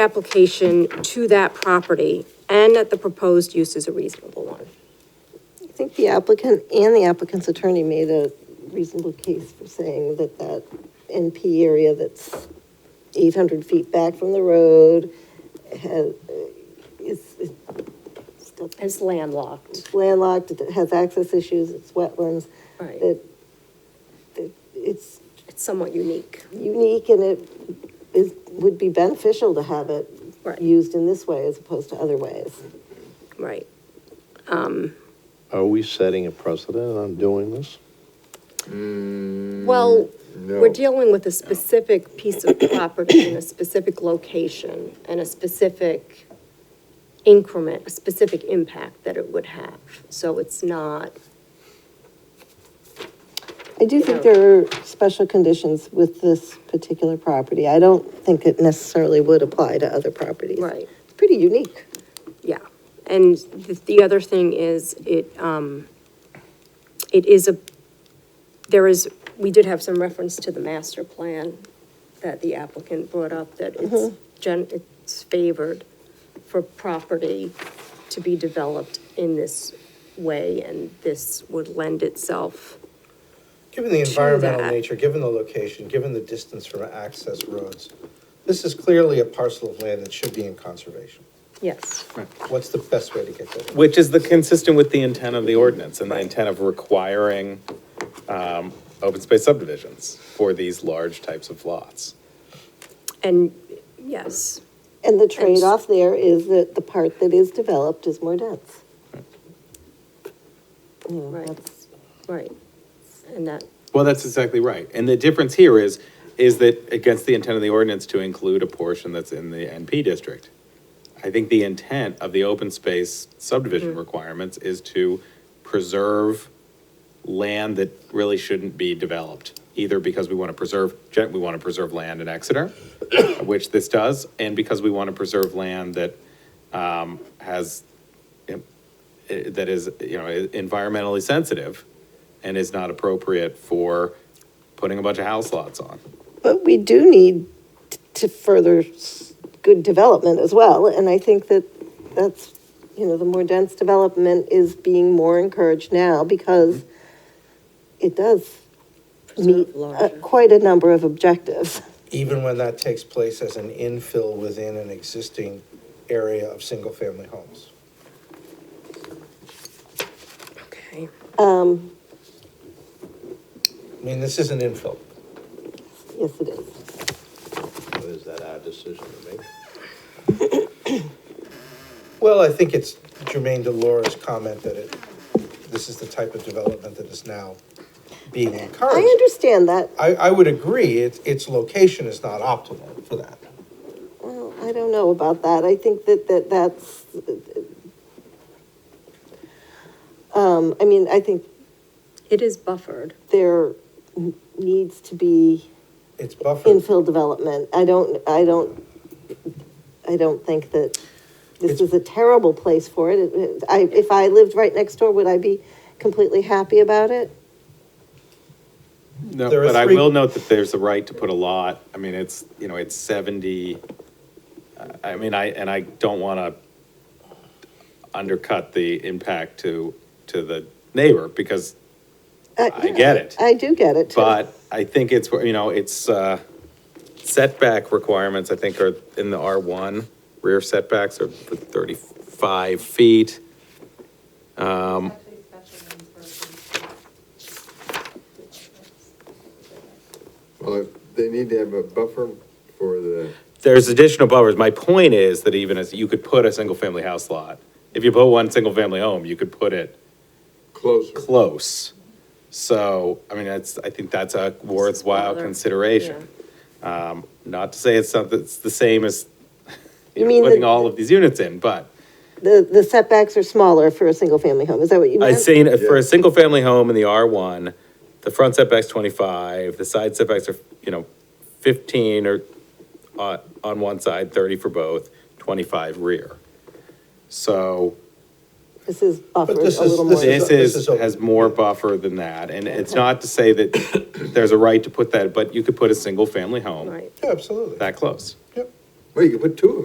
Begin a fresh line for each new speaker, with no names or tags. application to that property and that the proposed use is a reasonable one.
I think the applicant and the applicant's attorney made a reasonable case for saying that that NP area that's eight hundred feet back from the road has, is, is still
It's landlocked.
landlocked, it has access issues, it's wetlands.
Right.
That, that it's
It's somewhat unique.
unique and it is, would be beneficial to have it
Right.
used in this way as opposed to other ways.
Right.
Are we setting a precedent on doing this?
Well, we're dealing with a specific piece of property in a specific location and a specific increment, a specific impact that it would have. So it's not,
I do think there are special conditions with this particular property. I don't think it necessarily would apply to other properties.
Right.
It's pretty unique.
yeah. And the, the other thing is, it, um, it is a, there is, we did have some reference to the master plan that the applicant brought up, that it's gen, it's favored for property to be developed in this way, and this would lend itself.
Given the environmental
that.
nature, given the location, given the distance from access roads, this is clearly a parcel of land that should be in conservation.
Yes.
What's the best way to get that?
Which is the consistent with the intent of the ordinance and the intent of requiring um, open space subdivisions for these large types of lots.
And, yes,
And the trade-off there is that the part that is developed is more dense. You know,
Right.
that's-
right. And that,
Well, that's exactly right. And the difference here is, is that against the intent of the ordinance to include a portion that's in the NP district. I think the intent of the open space subdivision requirements is to preserve land that really shouldn't be developed, either because we want to preserve, gen- we want to preserve land in Exeter, which this does, and because we want to preserve land that um, has, you know, eh, that is, you know, environmentally sensitive and is not appropriate for putting a bunch of house lots on.
But we do need t- to further s- good development as well, and I think that that's, you know, the more dense development is being more encouraged now because it does meet
Preserve
uh,
larger.
quite a number of objectives.
Even when that takes place as an infill within an existing area of single-family homes.
okay.
I mean, this is an infill.
Yes, it is.
Or is that our decision to make?
Well, I think it's Jermaine Delora's comment that it, this is the type of development that is now being
I
encouraged.
understand that.
I, I would agree, its, its location is not optimal for that.
Well, I don't know about that. I think that, that that's, um, I mean, I think
It is buffered.
there n- needs to be
It's buffered.
infill development. I don't, I don't, I don't think that this
It's-
is a terrible place for it. It- it- I, if I lived right next door, would I be completely happy about it?
No,
There are
but I
three-
will note that there's a right to put a lot, I mean, it's, you know, it's seventy, uh, I I mean, I, and I don't wanna undercut the impact to, to the neighbor, because I
yeah,
get it.
Uh, I do get it too.
But I think it's, you know, it's, uh, setback requirements, I think, are in the R one. Rear setbacks are thirty-five feet.
Well, if they need to have a buffer for the,
There's additional buffers. My point is that even as, you could put a single-family house lot. If you put one single-family home, you could put it
closer.
close. So, I mean, that's, I think that's a worthwhile
Smaller,
consideration. Um, not to say it's something, it's the same as,
You
you know,
mean
putting
the-
all of these units in, but
The, the setbacks are smaller for a single-family home. Is that what you meant?
I've seen, it for
Yeah.
a single-family home in the R one, the front setback's twenty-five, the side setbacks are, you know, fifteen or on, on one side, thirty for both, twenty-five rear. So
This is buffered a
this is-
little more.
this
this
this
is,
is open.
has more buffer than that, and it's not to say that there's a right to put that, but you could put a single-family home
Right.
Yeah, absolutely.
that close.
Yep.
Well, you could put two of